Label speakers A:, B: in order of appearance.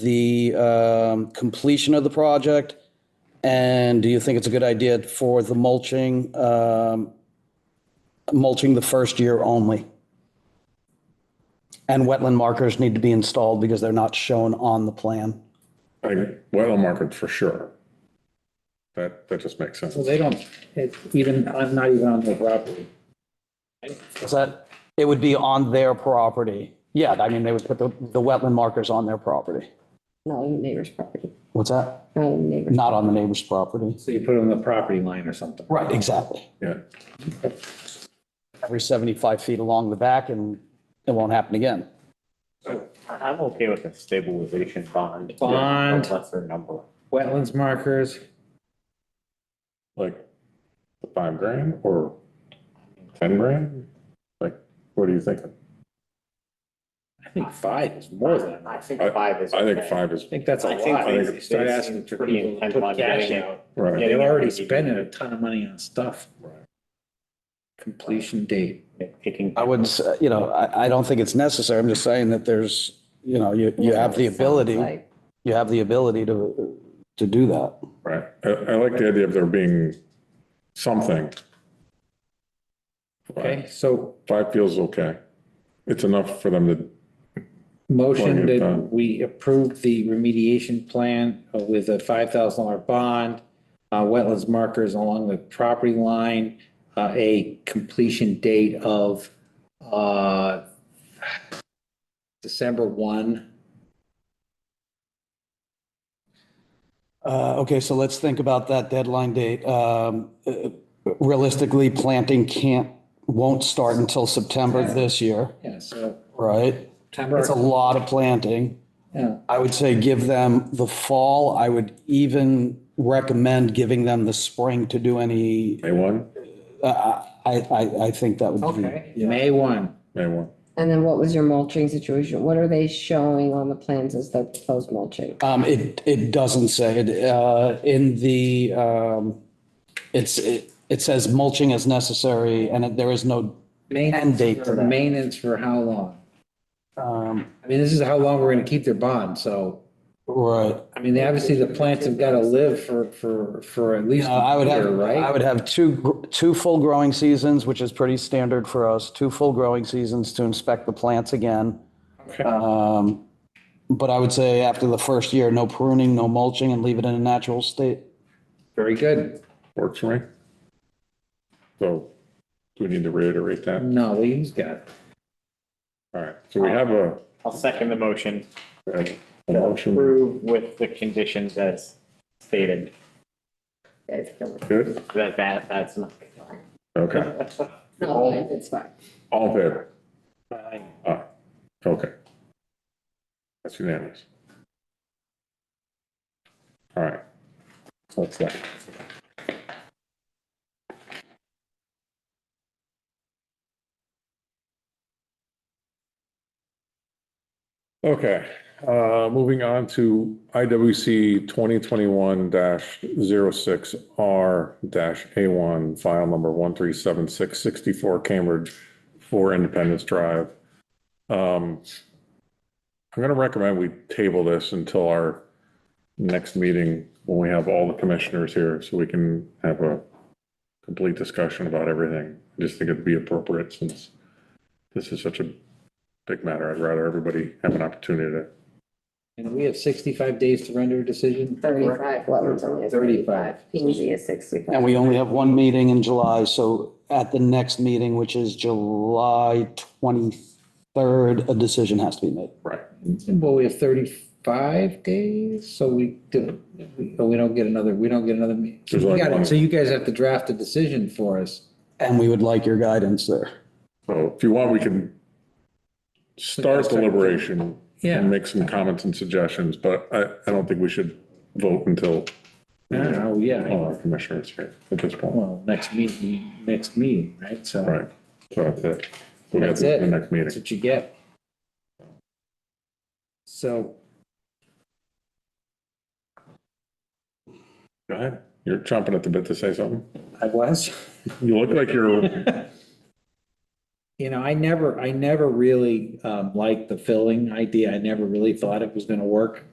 A: the um, completion of the project? And do you think it's a good idea for the mulching, um, mulching the first year only? And wetland markers need to be installed because they're not shown on the plan.
B: I, well, market for sure. That, that just makes sense.
C: So they don't, it- even, I'm not even on their property.
A: Is that, it would be on their property? Yeah, I mean, they would put the, the wetland markers on their property.
D: Not on the neighbor's property,
A: What's that?
D: not on the neighbor's.
A: Not on the neighbor's property.
C: So you put it on the property line or something.
A: Right, exactly.
B: Yeah.
A: Every 75 feet along the back and it won't happen again.
E: I'm okay with a stabilization bond.
C: Bond.
E: A Lesser number.
C: Wetlands markers,
B: Like five grand or 10 grand? Like, what are you thinking?
C: I think five is more than enough.
E: I think
B: I-
E: five is.
B: I think
E: okay.
B: five is,
C: I think that's a
E: I think
C: lot.
E: they-
C: You Start
E: they
C: asking
E: seem
C: for
E: pretty
C: people to
E: intent on
C: put cash
E: getting
C: out.
B: right.
C: They're already spending a ton of money on stuff. Completion date.
E: Taking.
A: I would, s- uh, you know, I, I don't think it's necessary. I'm just saying that there's, you know, you, you have the
D: Sounds
A: ability,
D: like-
A: you have the ability to, to do that.
B: Right. I, I like the idea of there being something.
C: Okay, so
B: Five feels okay. It's enough for them to,
C: motion
B: Plenty of
C: that
B: time.
C: we approve the remediation plan with a five thousand dollar bond, uh, wetlands markers along the property line, uh, a completion date of, uh, December one.
A: Uh, okay, so let's think about that deadline date. Um, uh, realistically, planting can't, won't start until September this year,
C: Yeah, so
A: right? It's a
C: September,
A: lot of planting.
C: yeah,
A: I would say give them the fall. I would even recommend giving them the spring to do any, uh,
B: May 1,
A: I, I, I think that would be.
C: okay, May one.
B: May 1.
D: And then what was your mulching situation? What are they showing on the plans as their proposed mulching?
A: Um, it, it doesn't say it, uh, in the, um, it's, it, it says mulching is necessary and it- there is no,
C: Maintenance
A: date
C: for-
A: for that.
C: Maintenance for how long?
A: um,
C: I mean, this is how long we're gonna keep their bond, so,
A: right.
C: I mean, obviously the plants have gotta live for, for, for at least
A: Uh, I
C: a
A: would
C: year,
A: have,
C: right?
A: I would have two, gr- two full growing seasons, which is pretty standard for us, two full growing seasons to inspect the plants again. Um, but I would say after the first year, no pruning, no mulching and leave it in a natural state.
C: Very good.
B: Works for me. So do we need to reiterate that?
C: No, he's got,
B: All right. So we have a,
E: I'll second the motion.
B: a motion.
E: Approve with the conditions as stated,
B: Good?
E: that, that, that's not.
B: Okay.
D: No, it's fine.
B: All in favor? Aye. Ah, Okay. That's unanimous. All right. What's that? Okay, uh, moving on to IWC twenty twenty-one 6 R A one, file number one three seven six sixty-four Cambridge, four Independence Drive. Um, I'm gonna recommend we table this until our next meeting, when we have all the commissioners here, so we can have a complete discussion about everything. I just think it'd be appropriate since this is such a big matter. I'd rather everybody have an opportunity to
C: and we have sixty-five days to render a decision.
D: Thirty-five, wetlands only
C: 35.
D: is thirty-five, PZ is sixty-five.
A: And we only have one meeting in July, so at the next meeting, which is July 23rd, a decision has to be made.
B: Right.
C: Well, we have thirty-five days, so we do, but we don't get another, we don't get another. me- So
B: There's
C: you
B: only
C: gotta-
B: one.
C: so you guys have to draft a decision for us.
A: And we would like your guidance there.
B: So if you want, we can start deliberation.
C: Yeah.
B: And make some comments and suggestions, but I, I don't think we should vote until
C: Oh, yeah.
B: all our commissioners here at this point.
C: Well, next meeting, next meeting, right? So
B: Right. So that's it. We got
C: That's
B: to
C: it.
B: the next
C: That's
B: meeting.
C: what you get. So
B: Go ahead. You're chomping at the bit to say something.
C: I was,
B: You look like you're
C: you know, I never, I never really um, liked the filling idea. I never really thought it was going to work.